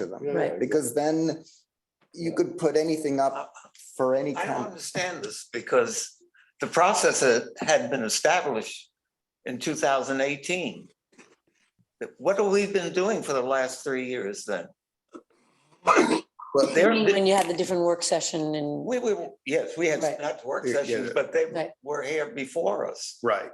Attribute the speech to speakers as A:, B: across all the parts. A: to them.
B: Yeah,
C: Right.
A: Because then you could put anything up for any
D: I don't
A: kind.
D: understand this because the process had- had been established in two thousand eighteen. What have we been doing for the last three years then?
A: But
D: They're-
C: You mean When you had the different work session and,
D: We were, yes, we had
C: Right.
D: not work
B: Yeah, yeah.
D: sessions, but they
C: Right.
D: were here before us.
B: Right.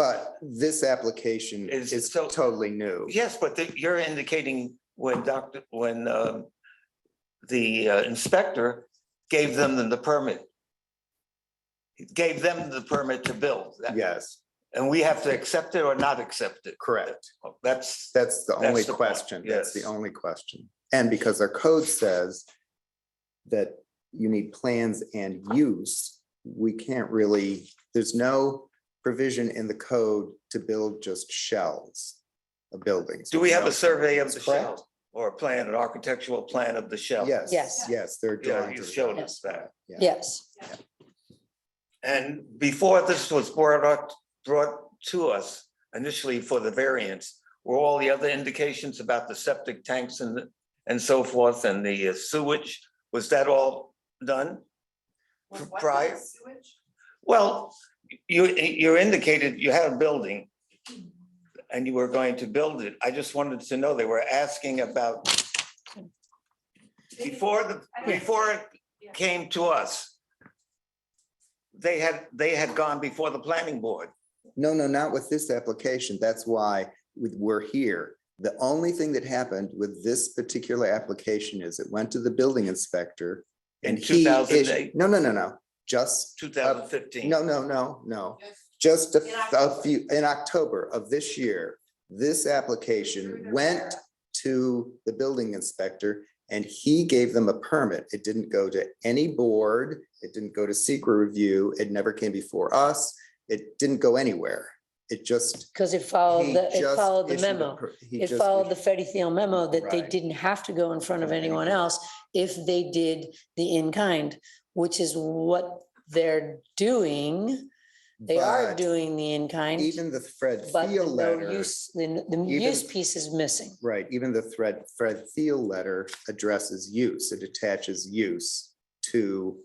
A: But this application
D: Is-
A: is
D: so-
A: totally new.
D: Yes, but the- you're indicating when Dr., when um, the uh, inspector gave them the- the permit. Gave them the permit to build. That-
A: Yes,
D: And we have to accept it or not accept it.
A: correct.
D: That's,
A: That's the
D: That's
A: only
D: the point,
A: question. That's the
D: yes.
A: only question. And because our code says that you need plans and use, we can't really, there's no provision in the code to build just shells of buildings.
D: do we have a survey of the
A: Correct.
D: shell or a plan, an architectural plan of the shell?
A: Yes,
C: Yes.
A: yes, they're
D: Yeah,
A: drawing.
D: you showed us that.
C: yes,
D: And before this was brought up, brought to us initially for the variance, were all the other indications about the septic tanks and, and so forth and the uh, sewage, was that all done?
E: Was
D: Pri-
E: what
D: prior-
E: the sewage?
D: Well, you, you indicated you had a building and you were going to build it. I just wanted to know, they were asking about
E: They didn't-
D: before the,
E: I don't-
D: before it
E: Yeah.
D: came to us, they had, they had gone before the planning board.
A: No, no, not with this application. That's why we- we're here. The only thing that happened with this particular application is it went to the building inspector.
D: In
A: and he
D: 2008?
A: issued- No, no, no, no, just,
D: 2015.
A: no, no, no, no.
E: Yes.
A: Just
E: In
A: a- a
E: October.
A: few, in October of this year, this
E: Through
A: application
E: their
A: went to the building inspector and he gave them a permit. It didn't go to any board. It didn't go to secret review. It never came before us. It didn't go anywhere. It just.
C: because it followed,
A: he
C: the it
A: just
C: followed the
A: issued a
C: memo.
A: per- he
C: It
A: just
C: followed the
A: issued-
C: Freddie Thiel memo that they
A: Right.
C: didn't have to go in front of
A: Right.
C: anyone else if they did the in-kind, which is what they're doing. They are
A: but
C: doing the in-kind,
A: Even the Fred
C: but the
A: Thiel
C: no
A: letter,
C: use, the, the
A: even-
C: use piece is missing.
A: right, even the Fred, Fred Thiel letter addresses use. It attaches use to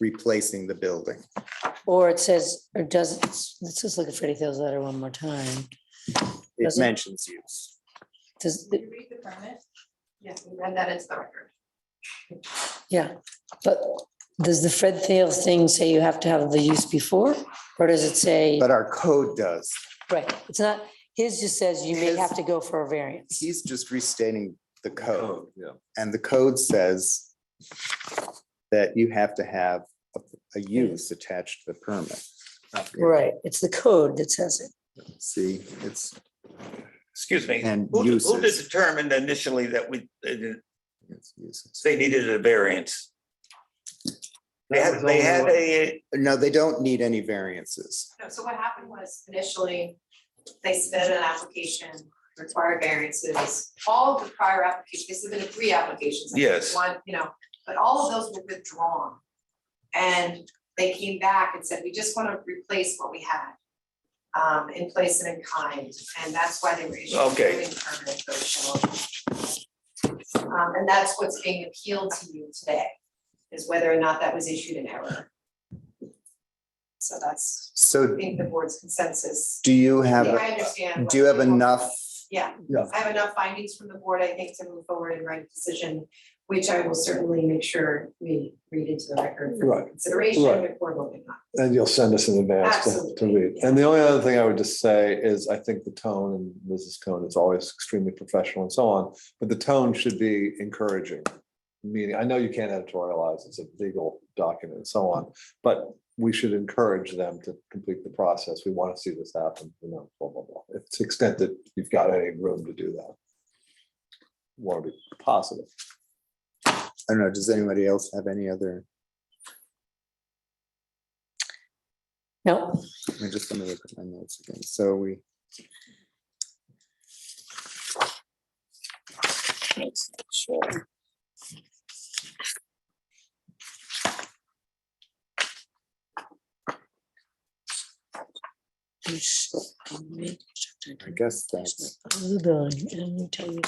A: replacing the building.
C: Or it says, or does, let's just look at Freddie Thiel's letter one more time.
A: It
C: Doesn't-
A: mentions use.
C: Does,
E: Did you read the permit? Yes, we read that into the record.
C: Yeah, but does the Fred Thiel thing say you have to have the use before? Or does it say,
A: But our code does.
C: right, it's not, his just says you may
A: His-
C: have to go for a variance.
A: He's just restating the code.
D: yeah.
A: And the code says that you have to have a, a use attached to the permit.
C: Right, it's the code that says it.
A: See, it's,
D: Excuse me.
A: And
D: Who de- Who
A: uses.
D: determined initially that we, that
A: it's uses.
D: they needed a variance? They had, they had a,
A: No, they don't need any variances.
E: No, so what happened was initially, they submitted an application, required variances, all of the prior applications, they submitted three applications. I think,
D: Yes.
E: One, you know, but all of those were withdrawn. And they came back and said, we just want to replace what we had um, in place and in kind, and that's why they were issued. a
D: Okay.
E: building permit for Shell. Um, and that's what's being appealed to you today, is whether or not that was issued in error. So that's I
A: So
E: think the board's consensus.
A: do you have,
E: I
A: a-
E: understand.
A: do you have
E: what-
A: enough?
E: Yeah.
A: Yeah.
E: I have enough findings from the board, I think, to move forward and write a decision, which I will certainly make sure we read into the record for
F: Right.
E: consideration
F: Right.
E: before voting on.
F: And you'll send us in advance to- to
E: Absolutely,
F: read. And the only other thing I would just say is I think the tone, and Mrs. Cohen is always extremely professional and so on, but the tone should be encouraging. Meaning, I know you can't editorialize, it's a legal document and so on, but we should encourage them to complete the process. We want to see this happen, you know, blah, blah, blah. If to the extent that you've got any room to do that. Want to be positive.
A: I don't know, does anybody else have any other?
C: No,
A: I just want to look at my notes again. So we. I guess that's.
C: the building, and we tell you.